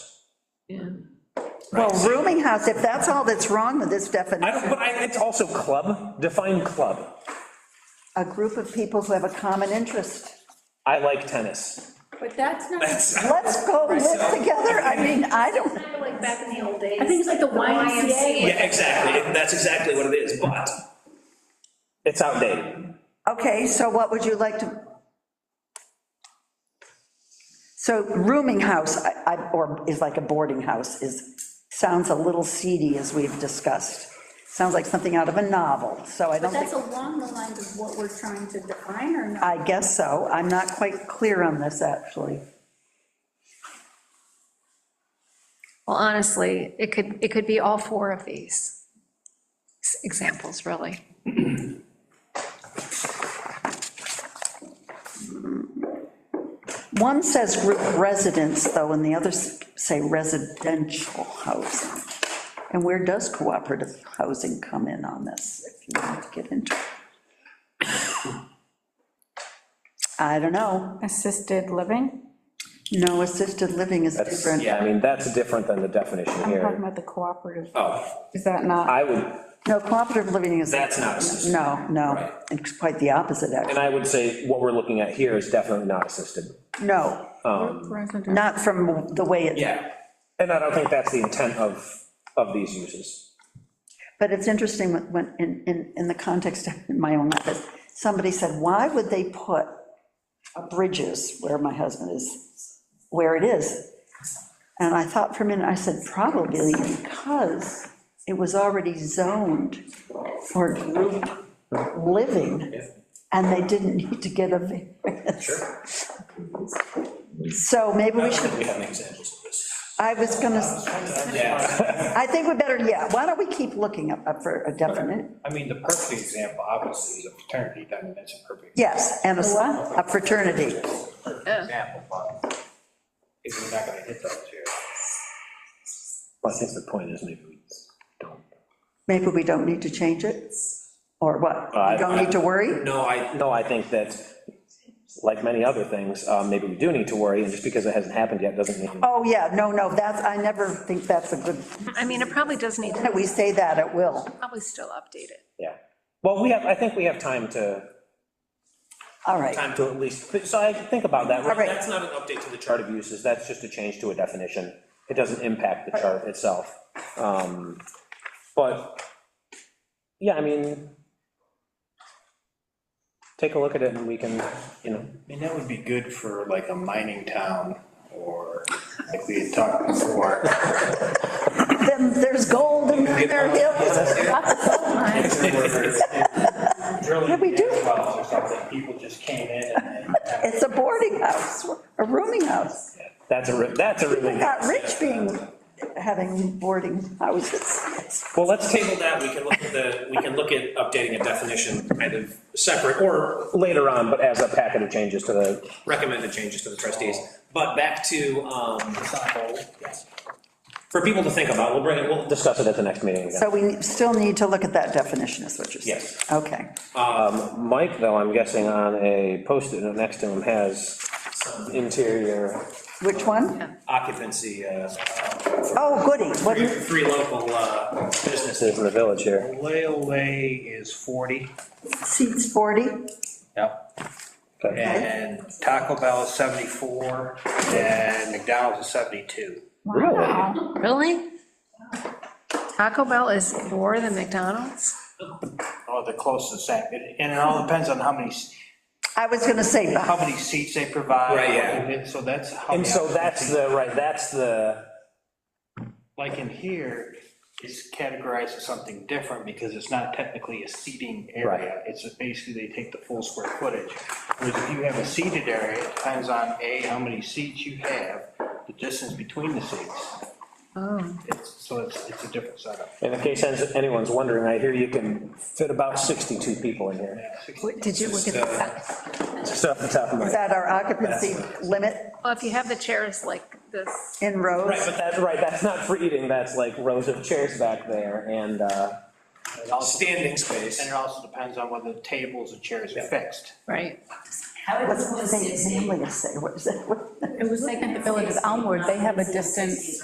Well, Right. rooming house, if that's all that's wrong with this I definition, don't, but I, it's also club, define club. a group of people who have a common interest. I like tennis. But that's not, it's That's, Let's go live together, I mean, I don't, kind of like back in the old days. I think it's like the YMCA. yeah, exactly, that's exactly what it is, but it's outdated. okay, so what would you like to? So rooming house, I, I- or is like a boarding house, is, sounds a little seedy, as we've discussed. Sounds like something out of a novel, so I don't But think, that's along the lines of what we're trying to define or not. I guess so, I'm not quite clear on this, actually. Well, honestly, it could, it could be all four of these s- examples, really. One says group residence, though, and the others say residential housing. And where does cooperative housing come in on this, if you want to get into it? I don't know. Assisted living? No, assisted living is different. Yeah, I mean, that's different than the definition I'm talking here. about the cooperative. Oh, Is that not, I would, No, cooperative living is. That's not assisted. No, no, Right. it's quite the opposite, and actually. I would say what we're looking at here is definitely not assisted. No, resident- not from the way it. Um, Yeah. And I don't think that's the intent of, of these uses. But it's interesting when- when, in, in, in the context of my own life, somebody said, why would they put a Bridges, where my husband is, where it is? And I thought for a minute, I said, probably because it was already zoned for group living, and they didn't need to get a variance. So maybe we should, have any examples of this. I was gonna, I think we better, yeah, why don't we keep looking up up for a definite? I mean, the perfect example, obviously, is a fraternity, I mean, that's a perfect Yes, and a a fraternity. example, but if we're not gonna hit those here. Well, I think the point is maybe we don't. Maybe we don't need to change it, or what? We don't need to worry? No, I. No, I think that, like many other things, uh, maybe we do need to worry, and just because it hasn't happened yet doesn't mean. Oh, yeah, no, no, that's, I never think that's a good, I mean, it probably does need to, Oh. that we say that, it will. probably still update it. Yeah. Well, we have, I think we have time to, All right, time to at least, so I think about that. All right. That's not an update to the chart of uses, that's just a change to a definition. It doesn't impact the chart itself. Um, But, yeah, I mean, take a look at it and we can, you know, I mean, that would be good for like a mining town, or like we had talked before. then there's gold in their hills. Drilling we do? gas wells or something, people just came in and. It's a boarding house, a rooming house. that's a, re- that's a really. We got rich being, having boarding houses. Well, let's table that, we can look at the, we can look at updating a definition kind of separate, or later on, but as a packet of changes to the. Recommended changes to the trustees, but back to, um, for people to think about, we'll bring it, we'll discuss it at the next meeting again. So we still need to look at that definition, is what you're saying? Yes. Okay. Mike, though, I'm guessing on a post-it note next to him has some interior Which one? occupancy, uh, Oh, goody, what, free- free local, uh, businesses in the village here. Leolay is 40. seats 40? Yep. Okay. And Taco Bell is 74, and McDonald's is 72. Wow. Really? Taco Bell is more than McDonald's? Oh, they're close to the same, It- and it all depends on how many, s- I was gonna say, how many seats they provide. Right, yeah. and So that's how. And many so that's the, right, that's the, Like in here, it's categorized as something different because it's not technically a seating area. Right. It's basically, they take the full square footage. Whereas if you have a seated area, it depends on A, how many seats you have, the distance between the seats. Oh. It's- So it's, it's a different setup. in case anyone's wondering, I hear you can fit about 62 people in here. Did you look at uh, that? Just off the top of my is head. that our occupancy limit Well, if you have the chairs like this, in Right, rows? but that's right, that's not for eating, that's like rows of chairs back there and, uh. It also- Standing space. And it also depends on whether the tables and chairs are fixed. right? What's the thing, say, what is it? It was like at the Village of Elmwood, they have a distance